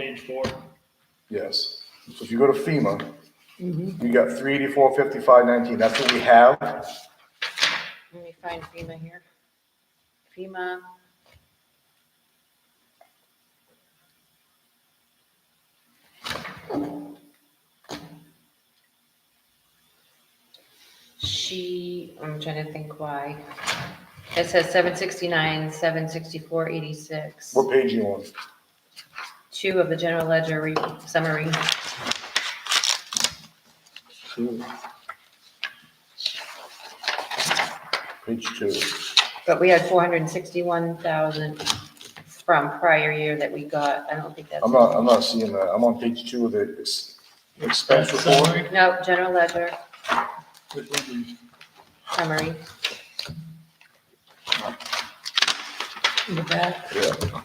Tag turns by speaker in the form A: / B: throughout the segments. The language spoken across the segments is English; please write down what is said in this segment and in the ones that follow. A: page four?
B: Yes. So if you go to FEMA, you got three eighty-four, fifty-five, nineteen. That's what we have.
C: Let me find FEMA here. FEMA. She, I'm trying to think why. It says seven sixty-nine, seven sixty-four, eighty-six,
B: What page you on?
C: two of the general ledger re- summary.
B: Page two.
C: But we had four hundred and sixty-one thousand from prior year that we got. I don't think that's.
B: I'm not, I'm not seeing that. I'm on page two of the ex- expense
A: That's
B: report.
A: summary?
C: No, general ledger
A: Which one?
C: summary. Look at that.
B: Yeah.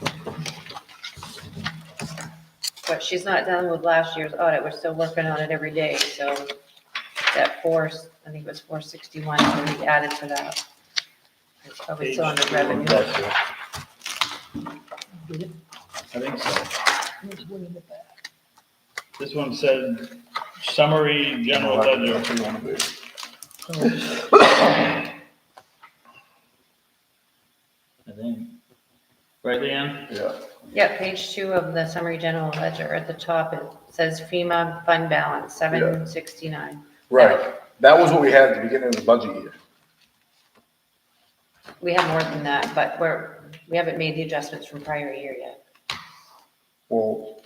C: But she's not done with last year's audit. We're still working on it every day, so that four, I think it was four sixty-one, we added to that. It's probably still on the
B: I'm
C: revenue.
B: back there.
A: I think so. This one said summary general ledger.
B: That's what you wanna do.
A: I think. Right, Leanne?
B: Yeah.
C: Yeah, page two of the summary general ledger at the top, it says FEMA fund balance, seven sixty-nine.
B: Right. That was what we had at the beginning of the budget year.
C: We have more than that, but we're, we haven't made the adjustments from prior year yet.
B: Well,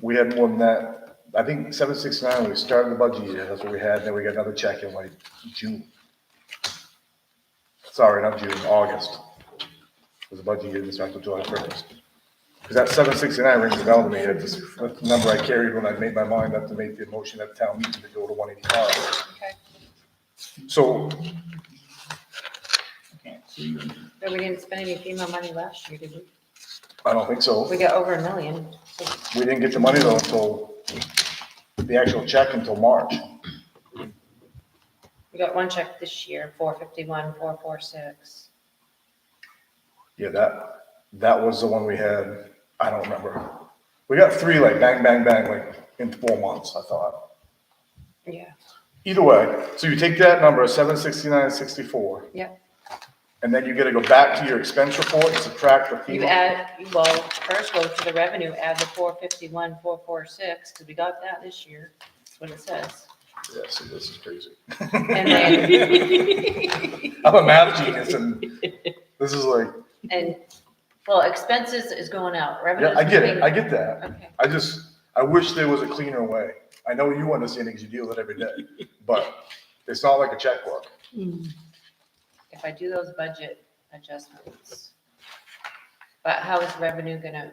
B: we had more than that. I think seven sixty-nine, we started the budget year, that's what we had, and then we got another check in like June. Sorry, not June, August. Was the budget year, this after July first. Because that seven sixty-nine rings a bell to me, that's that's the number I carried when I made my mind up to make the motion at town meeting to go to one eighty-five.
C: Okay.
B: So,
A: Can't see.
C: But we didn't spend any FEMA money last year, did we?
B: I don't think so.
C: We got over a million.
B: We didn't get the money though until, the actual check until March.
C: We got one check this year, four fifty-one, four four six.
B: Yeah, that, that was the one we had, I don't remember. We got three like bang, bang, bang, like in four months, I thought.
C: Yeah.
B: Either way, so you take that number, seven sixty-nine sixty-four,
C: Yep.
B: and then you gotta go back to your expense report and subtract the
C: You
B: FEMA.
C: add, you- well, first go to the revenue, add the four fifty-one, four four six, because we got that this year. That's what it says.
B: Yeah, see, this is crazy.
C: And then,
B: I'm a math genius and this is like,
C: and, well, expenses is going out, revenue.
B: yeah, I get it, I get that.
C: Okay.
B: I just, I wish there was a cleaner way. I know you understand because you deal with it every day, but it's not like a checkbook.
C: if I do those budget adjustments. But how is revenue gonna,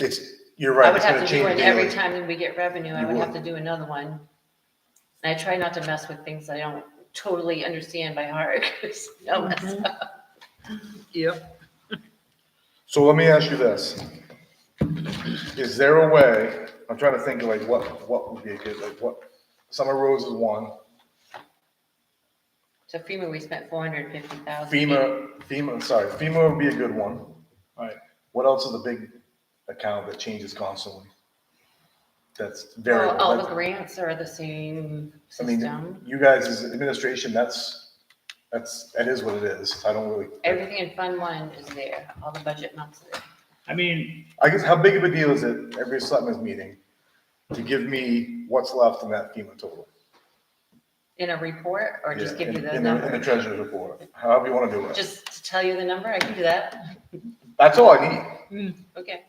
B: It's, you're
C: I
B: right,
C: would
B: it's
C: have
B: gonna
C: to do
B: change
C: it
B: daily.
C: every time that we get revenue, I
B: You
C: would have
B: would.
C: to do another one. And I try not to mess with things I don't totally understand by heart, 'cause I'll mess up.
D: Yep.
B: So let me ask you this. Is there a way, I'm trying to think of like what, what would be a good, like what, Summer Rose is one,
C: So FEMA, we spent four hundred and fifty thousand.
B: FEMA, FEMA, sorry, FEMA would be a good one.
A: Right.
B: What else is a big account that changes constantly? That's very.
C: Well, all the grants are the same
B: I mean,
C: system.
B: you guys as administration, that's, that's, that is what it is. I don't really.
C: Everything in Fund One is there, all the budget months are there.
A: I mean,
B: I guess, how big of a deal is it every selectmen's meeting to give me what's left in that FEMA total?
C: In a report, or just
B: Yeah,
C: give you
B: in-
C: the
B: in In the
C: number?
B: treasurer's report, however you want to do it.
C: Just to tell you the number, I can do that,
B: That's all I need,
C: okay.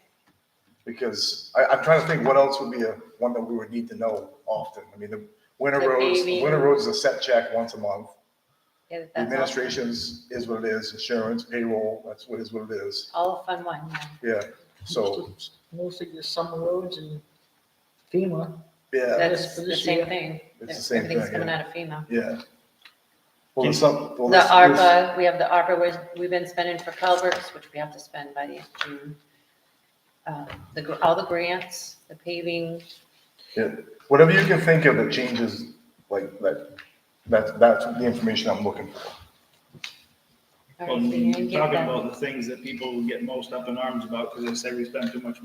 B: because I, I'm trying to think what else would be a, one that we would need to know often. I mean, the winter
C: The
B: roads,
C: paving.
B: winter roads is a set check once a month.
C: Yeah,
B: The
C: that's all.
B: Administration's is what it is, insurance, payroll, that's what is what it is,
C: All of Fund One, yeah.
B: yeah, so,
D: Mostly the summer roads and FEMA.
B: yeah,
C: That's
D: for
C: the
D: this
C: same
D: year.
C: thing.
B: It's the same
C: Everything's
B: thing,
C: coming
B: yeah.
C: out of FEMA.
B: yeah. Well, there's some. well,
C: The
B: there's- there's-
C: ARPA, we have the ARPA, which we've been spending for culverts, which we have to spend by the end of June. Uh, The, gr- all the grants, the paving,
B: Yeah, whatever you can think of that changes, like, that, that's, that's the information I'm looking for.
C: all
A: well,
C: right, so you
A: you're
C: can get
A: talking
C: that.
A: about the things that people get most up in arms about because they say we spend too much